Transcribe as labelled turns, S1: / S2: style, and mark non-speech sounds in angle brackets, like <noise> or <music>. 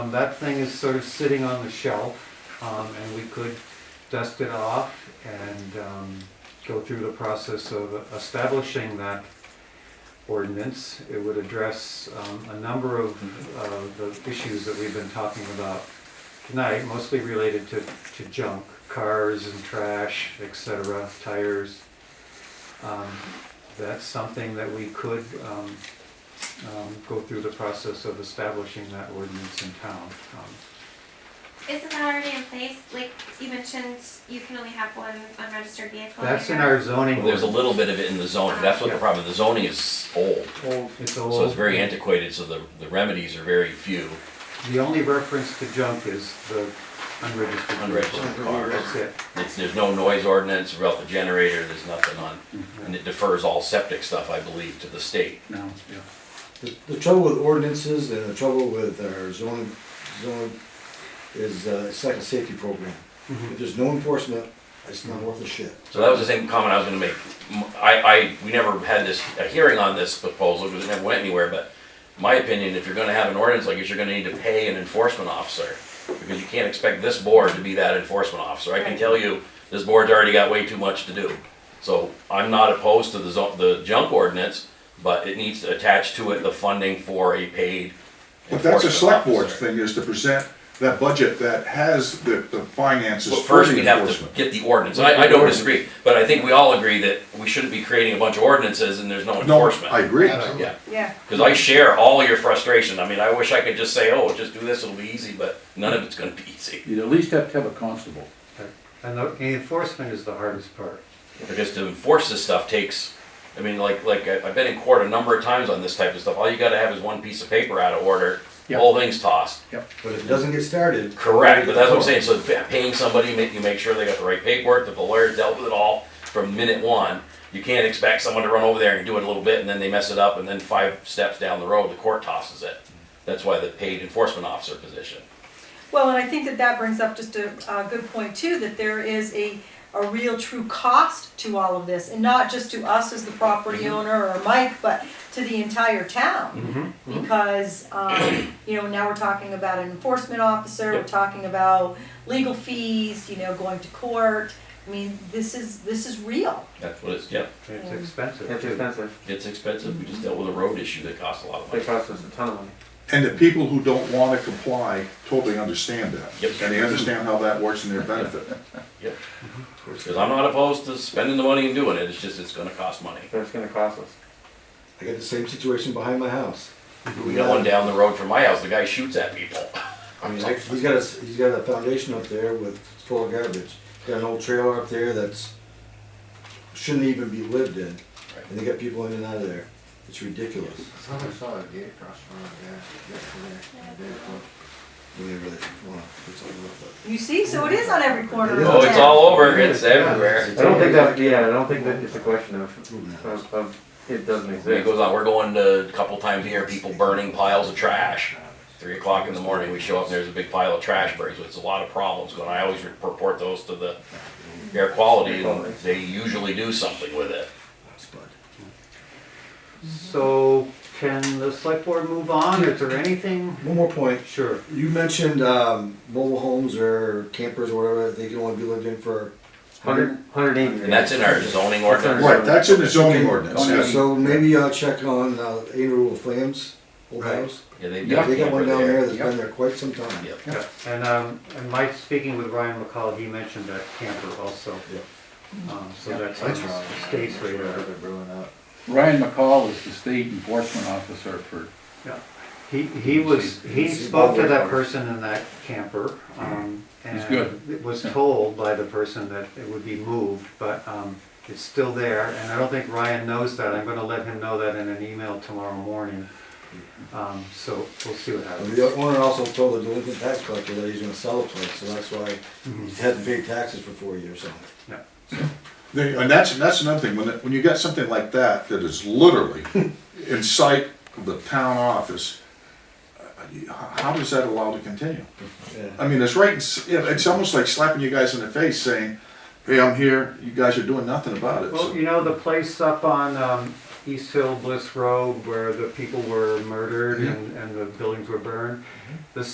S1: Um, That thing is sort of sitting on the shelf, um, and we could dust it off and um, go through the process of establishing that ordinance. It would address um, a number of uh, the issues that we've been talking about tonight, mostly related to to junk, cars and trash, et cetera, tires. Um, That's something that we could um, um, go through the process of establishing that ordinance in town. Um,
S2: Isn't that already in place? Like, you mentioned you can only have one unregistered vehicle.
S1: That's in
S2: your
S1: our
S2: drive-
S1: zoning.
S3: Well, There's a little bit of it in the zoning, that's what the problem, the zoning is old,
S1: It's
S3: so it's
S1: old.
S3: very antiquated, so the, the remedies are very few.
S1: The only reference to junk is the unregistered.
S3: Unregistered
S1: vehicle.
S3: cars.
S1: That's it.
S3: It's, there's no noise ordinance about the generator, there's nothing on, and it defers all septic stuff, I believe, to the state.
S4: No, yeah.
S5: The- The trouble with ordinances and the trouble with our zoning, zoning is, uh, it's like a safety program. If there's no enforcement, it's not worth a shit.
S3: So that was the same comment I was gonna make. M- I, I, we never had this, a hearing on this proposal, because it never went anywhere, but my opinion, if you're gonna have an ordinance like this, you're gonna need to pay an enforcement officer. Because you can't expect this board to be that enforcement officer. I can
S2: Right.
S3: tell you, this board's already got way too much to do. So I'm not opposed to the zo- the junk ordinance, but it needs to attach to it the funding for a paid
S6: But that's a
S3: enforcement
S6: select board's
S3: officer.
S6: thing, is to present that budget that has the, the finances
S3: But
S6: for
S3: first,
S6: the
S3: we'd have to
S6: enforcement.
S3: get the ordinance. I, I don't disagree, but I think we all agree that we shouldn't be creating a bunch of ordinances and there's no
S6: No,
S3: enforcement.
S6: I agree.
S3: Yeah,
S7: Yeah,
S3: because I share all your frustration. I mean, I wish I could just say, oh, just do this, it'll be easy, but none of it's gonna be <laughs> easy.
S4: You'd at least have to have a constable.
S1: And the the enforcement is the hardest part.
S3: Because to enforce this stuff takes, I mean, like, like, I- I've been in court a number of times on this type of stuff. All you gotta have is one piece of paper out of order,
S4: Yeah.
S3: whole thing's tossed.
S5: But if it doesn't get started.
S3: Correct, but that's what I'm saying, so pa- paying somebody, make, you make sure they got the right paperwork, that the lawyer dealt with it all from minute one. You can't expect someone to run over there and do it a little bit, and then they mess it up, and then five steps down the road, the court tosses it. That's why the paid enforcement officer position.
S7: well, and I think that that brings up just a, a good point too, that there is a, a real true cost to all of this, and not just to us as the property owner or Mike, but to the entire town. Because, um, you know, now we're talking about an enforcement officer, we're
S3: Yep.
S7: talking about legal fees, you know, going to court. I mean, this is, this is real.
S3: That's what it's, yeah.
S1: It's
S7: Yeah.
S1: expensive
S8: It's
S1: too.
S8: expensive.
S3: It's expensive, we just dealt with a road issue that cost a lot of
S8: They
S3: money.
S8: cost us a ton of money.
S6: And the people who don't wanna comply totally understand that.
S3: Yep.
S6: And they understand how that works in their benefit.
S3: Because I'm not opposed to spending the money and doing it, it's just, it's gonna cost money.
S8: So it's gonna cost us.
S5: I got the same situation behind my house.
S3: We got one down the road from my house, the guy shoots at people.
S5: I mean, like, he's got a, s- he's got a foundation up there with, full of garbage. Got an old trailer up there that's, shouldn't even be lived in. And they got people in and out of there. It's ridiculous.
S9: Someone saw a gate across from the gas yesterday, the day before.
S5: When they really wanna put something up, but-
S7: You see, so Mm-hmm. it is on every corner of the town.
S3: Oh, it's all over, it's everywhere.
S8: I don't think that, yeah, I don't think that it's a question of,
S5: Moving that.
S8: of, of, it doesn't
S3: It
S8: exist.
S3: goes on, we're going to, a couple times a year, people burning piles of trash. Three o'clock in the morning, we show up, and there's a big pile of trash burns, it's a lot of problems going, on. I always report those to the air quality, and they usually do something with it.
S5: Spud.
S1: So can the select board move on? Is there anything?
S5: One more point.
S1: Sure.
S5: You mentioned um, mobile homes or campers or whatever, they can only be lived in for.
S8: Hundred, hundred eighty.
S3: And that's in our zoning ordinance.
S6: Right, that's in the zoning ordinance,
S4: Okay.
S6: yes.
S5: So maybe I'll check on uh, Andrew Flames, old
S1: Right.
S5: house.
S3: Yeah, they've got
S5: They got
S3: one
S5: one down there
S3: there.
S5: that's been there quite some time.
S3: Yep.
S1: Yeah. And, um, and Mike, speaking with Ryan McCall, he mentioned that camper also. Um, so that's on
S9: That's
S1: the
S9: wrong.
S1: state's radar.
S9: They're brewing up.
S4: Ryan McCall is the state enforcement officer for,
S1: He, he was, he
S5: He's-
S1: spoke to that person in that camper, um,
S4: He's
S1: and
S4: good.
S1: it was
S4: Yeah.
S1: told by the person that it would be moved, but, um, it's still there, and I don't think Ryan knows that, I'm gonna let him know that in an email tomorrow morning. Um, so we'll see what
S5: And
S1: happens.
S5: The owner also told the delinquent tax collector that he's gonna sell the place, so that's why
S1: Mhm.
S5: he hadn't paid taxes for four years, so.
S6: They- And that's, and that's another thing, when, it- when you got something like that, that is literally in sight of the town office, uh, h- how does that allow to continue?
S5: yeah.
S6: I mean, it's right. It's, it's almost like slapping you guys in the face, saying, "Hey, I'm here. You guys are doing nothing about it."
S1: Well, you know, the place up on, um, East Hill Bliss Road where the people were murdered and, and the buildings were burned, the